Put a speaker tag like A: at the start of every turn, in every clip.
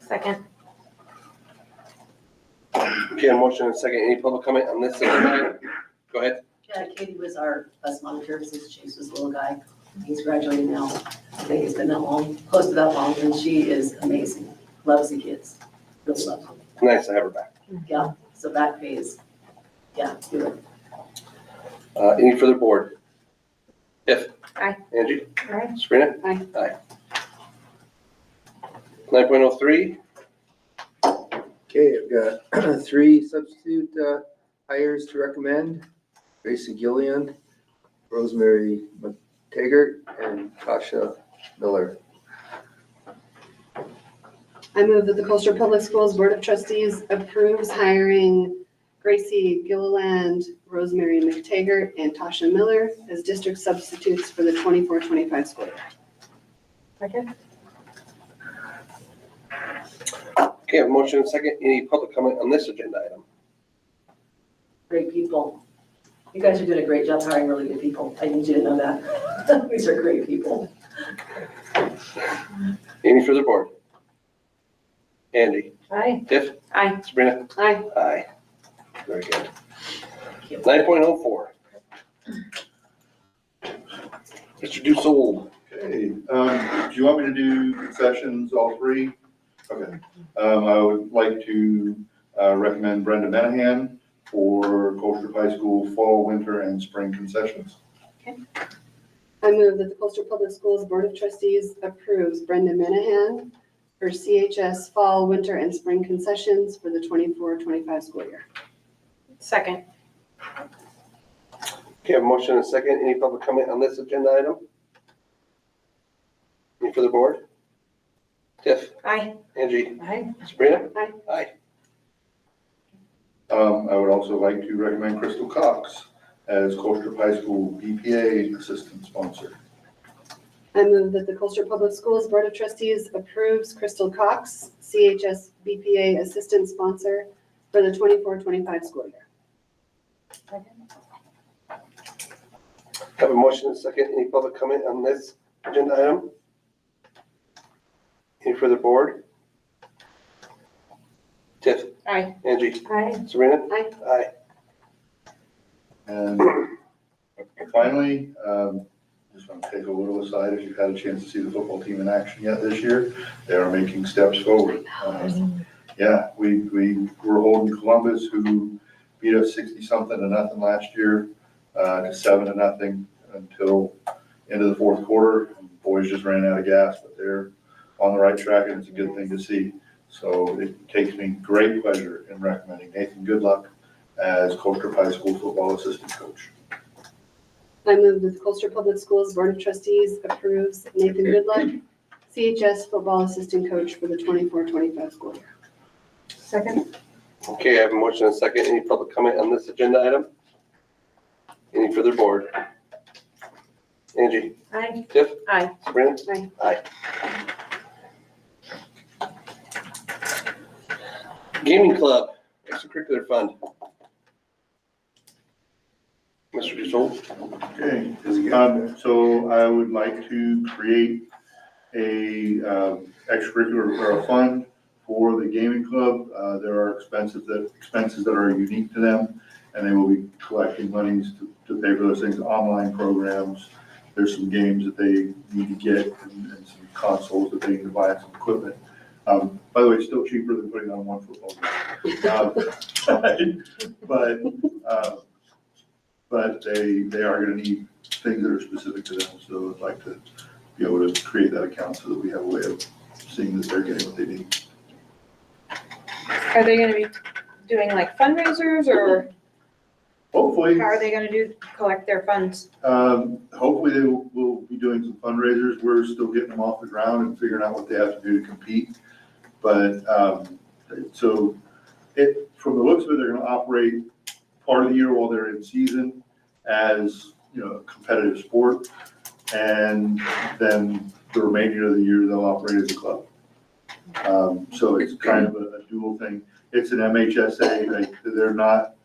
A: Second.
B: Okay, a motion and a second. Any public comment on this item? Go ahead.
C: Yeah, Katie was our bus monitor since Chase was a little guy. He's graduating now. I think it's been that long, close to that long, and she is amazing. Loves the kids. Really loves them.
B: Nice to have her back.
C: Yeah, so that pays. Yeah, do it.
B: Uh, any further board? Tiff?
A: Aye.
B: Angie?
A: Aye.
B: Sabrina?
D: Aye.
B: Aye. Nine point oh three,
E: Okay, I've got three substitute uh, hires to recommend. Gracie Gillian, Rosemary McTaggart, and Tasha Miller.
D: I move that the Colchester Public Schools Board of Trustees approves hiring Gracie Gilliland, Rosemary McTaggart, and Tasha Miller as district substitutes for the 24-25 school year.
A: Second.
B: okay, a motion and a second. Any public comment on this agenda item?
C: Great people. You guys are doing a great job hiring really good people. I need you to know that. These are great people.
B: Any further board? Andy?
A: Aye.
B: Tiff?
A: Aye.
B: Sabrina?
D: Aye.
B: Aye. Very good.
C: Thank you.
B: Nine point oh four. Mr. Dusel,
F: Okay, um, do you want me to do concessions, all three? Okay, um, I would like to, uh, recommend Brenda Menahan for Colchester High School Fall, Winter, and Spring concessions.
D: I move that the Colchester Public Schools Board of Trustees approves Brenda Minahan for CHS Fall, Winter, and Spring concessions for the 24-25 school year.
A: Second.
B: okay, a motion and a second. Any public comment on this agenda item? Any further board? Tiff?
A: Aye.
B: Angie?
A: Aye.
B: Sabrina?
D: Aye.
B: Aye.
F: Um, I would also like to recommend Crystal Cox as Colchester High School BPA Assistant Sponsor.
D: I move that the Colchester Public Schools Board of Trustees approves Crystal Cox, CHS BPA Assistant Sponsor for the 24-25 school year.
B: Have a motion and a second. Any public comment on this agenda item? Any further board? Tiff?
A: Aye.
B: Angie?
A: Aye.
B: Sabrina?
D: Aye.
B: Aye.
F: And finally, um, just want to take a little aside, if you've had a chance to see the football team in action yet this year, they are making steps forward. Uh, Yeah, we, we were holding Columbus, who beat us sixty-something to nothing last year, uh, to seven to nothing until end of the fourth quarter. Boys just ran out of gas, but they're on the right track, and it's a good thing to see. So it takes me great pleasure in recommending Nathan Goodluck as Colter High School football assistant coach.
D: I move that the Colchester Public Schools Board of Trustees approves Nathan Goodluck, CHS Football Assistant Coach for the 24-25 school year.
A: Second.
B: Okay, I have a motion and a second. Any public comment on this agenda item? Any further board? Angie?
A: Aye.
B: Tiff?
A: Aye.
B: Sabrina?
D: Aye.
B: Gaming Club, extracurricular fund. Mr. Dusel,
F: Okay, um, so I would like to create a, um, extracurricular or a fund for the gaming club. Uh, there are expenses that, expenses that are unique to them, and they will be collecting monies to, to pay for those things, online programs. There's some games that they need to get and, and some consoles that they need to buy and some equipment. Um, by the way, it's still cheaper than putting on one football game. Um, But, uh, but they, they are gonna need things that are specific to them, so I'd like to be able to create that account so that we have a way of seeing that they're getting what they need.
G: Are they gonna be doing like fundraisers or
F: Hopefully,
G: how are they gonna do, collect their funds?
F: um, hopefully they will, will be doing some fundraisers, we're still getting them off the ground and figuring out what they have to do to compete. But, um, so it, from the looks of it, they're gonna operate part of the year while they're in season as, you know, a competitive sport. And then the remainder of the year, they'll operate as a club. Um, so it's kind of a a dual thing. It's an MHSA, like, they're not,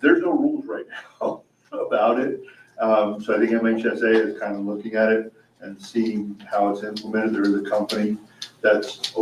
F: there's no rules right now about it. Um, so I think MHSA is kind of looking at it and seeing how it's implemented. There is a company that's